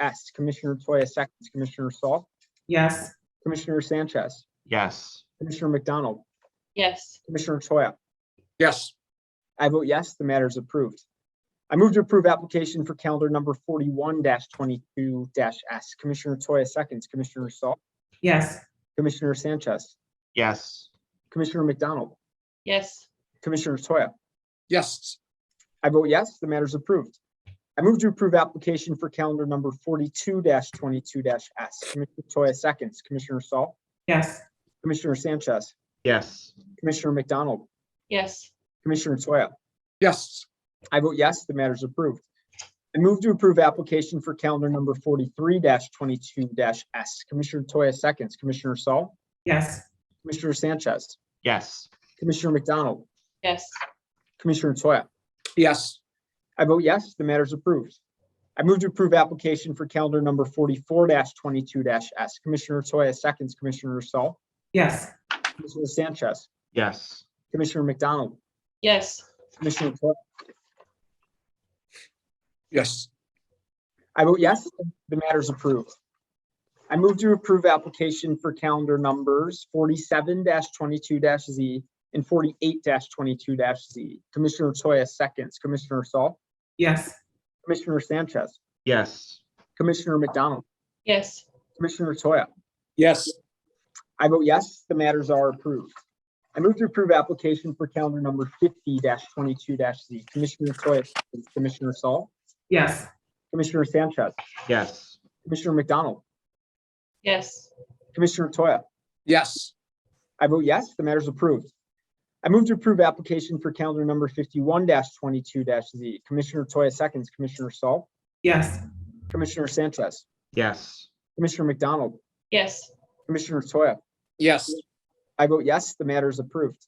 S. Commissioner Toya seconds, Commissioner Saul, Yes. Commissioner Sanchez, Yes. Commissioner McDonald, yes, Commissioner Toya. yes, I vote yes, the matter is approved. I move to approve application for calendar number forty-one twenty-two S. Commissioner Toya seconds, Commissioner Saul, Yes. Commissioner Sanchez, Yes. Commissioner McDonald, yes, Commissioner Toya. yes, I vote yes, the matter is approved. I move to approve application for calendar number forty-two twenty-two S. Commissioner Toya seconds, Commissioner Saul, Yes. Commissioner Sanchez, Yes. Commissioner McDonald, yes, Commissioner Toya. yes, I vote yes, the matter is approved. I move to approve application for calendar number forty-three twenty-two S. Commissioner Toya seconds, Commissioner Saul, Yes. Commissioner Sanchez, Yes. Commissioner McDonald, yes, Commissioner Toya. yes, I vote yes, the matter is approved. I move to approve application for calendar number forty-four twenty-two S. Commissioner Toya seconds, Commissioner Saul, Yes. Commissioner Sanchez, Yes. Commissioner McDonald, yes, Commissioner Toya. yes, I vote yes, the matter is approved. I move to approve application for calendar numbers forty-seven twenty-two Z and forty-eight twenty-two Z. Commissioner Toya seconds, Commissioner Saul, Yes. Commissioner Sanchez, Yes. Commissioner McDonald, yes, Commissioner Toya. yes, I vote yes, the matters are approved. I move to approve application for calendar number fifty twenty-two Z. Commissioner Toya, seconds, Commissioner Saul, Yes. Commissioner Sanchez, Yes. Commissioner McDonald, yes, Commissioner Toya. yes, I vote yes, the matter is approved. I move to approve application for calendar number fifty-one twenty-two Z. Commissioner Toya seconds, Commissioner Saul, Yes. Commissioner Sanchez, Yes. Commissioner McDonald, yes, Commissioner Toya. yes, I vote yes, the matter is approved.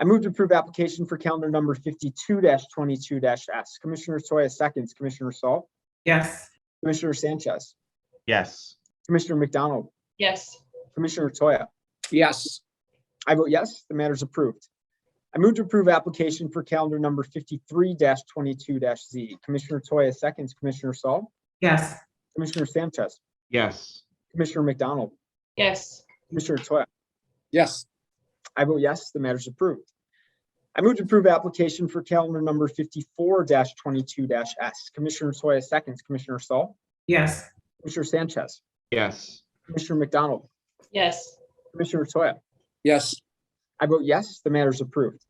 I move to approve application for calendar number fifty-two twenty-two S. Commissioner Toya seconds, Commissioner Saul, Yes. Commissioner Sanchez, Yes. Commissioner McDonald, yes, Commissioner Toya. yes, I vote yes, the matter is approved. I move to approve application for calendar number fifty-three twenty-two Z. Commissioner Toya seconds, Commissioner Saul, Yes. Commissioner Sanchez, Yes. Commissioner McDonald, yes, Commissioner Toya. yes, I vote yes, the matter is approved. I move to approve application for calendar number fifty-four twenty-two S. Commissioner Toya seconds, Commissioner Saul, Yes. Commissioner Sanchez, Yes. Commissioner McDonald, yes, Commissioner Toya. yes, I vote yes, the matter is approved.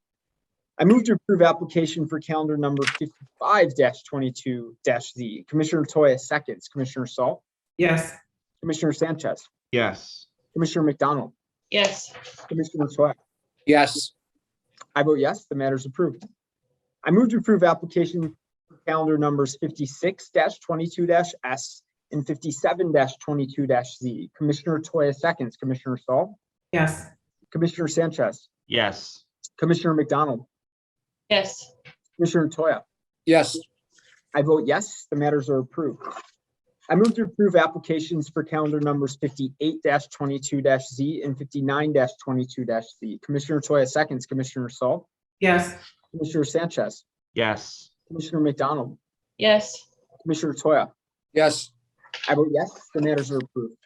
I move to approve application for calendar number fifty-five twenty-two Z. Commissioner Toya seconds, Commissioner Saul, Yes. Commissioner Sanchez, Yes. Commissioner McDonald, yes, Commissioner Toya. yes, I vote yes, the matter is approved. I move to approve application for calendar numbers fifty-six twenty-two S and fifty-seven twenty-two Z. Commissioner Toya seconds, Commissioner Saul, Yes. Commissioner Sanchez, Yes. Commissioner McDonald, yes, Commissioner Toya. yes, I vote yes, the matters are approved. I move to approve applications for calendar numbers fifty-eight twenty-two Z and fifty-nine twenty-two Z. Commissioner Toya seconds, Commissioner Saul, Yes. Commissioner Sanchez, Yes. Commissioner McDonald, yes, Commissioner Toya. yes, I vote yes, the matters are approved.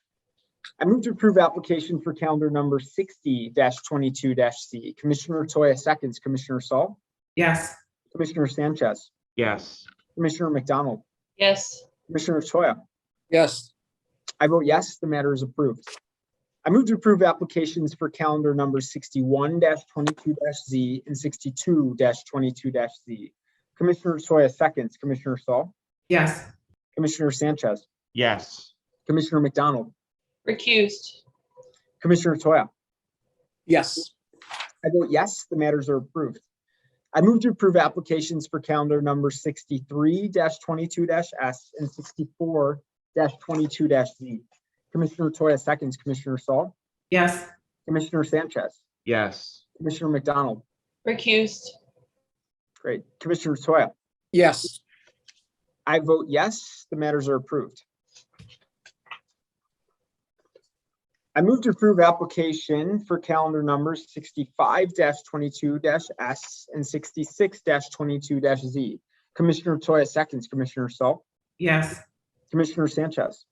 I move to approve application for calendar number sixty twenty-two Z. Commissioner Toya seconds, Commissioner Saul, Yes. Commissioner Sanchez, Yes. Commissioner McDonald, yes, Commissioner Toya. yes, I vote yes, the matter is approved. I move to approve applications for calendar numbers sixty-one twenty-two Z and sixty-two twenty-two Z. Commissioner Toya seconds, Commissioner Saul, Yes. Commissioner Sanchez, Yes. Commissioner McDonald, recused, Commissioner Toya. yes, I vote yes, the matters are approved. I move to approve applications for calendar number sixty-three twenty-two S and sixty-four twenty-two Z. Commissioner Toya seconds, Commissioner Saul, Yes. Commissioner Sanchez, Yes. Commissioner McDonald, recused, Great. Commissioner Toya, yes, I vote yes, the matters are approved. I move to approve application for calendar numbers sixty-five twenty-two S and sixty-six twenty-two Z. Commissioner Toya seconds, Commissioner Saul, Yes. Commissioner Sanchez.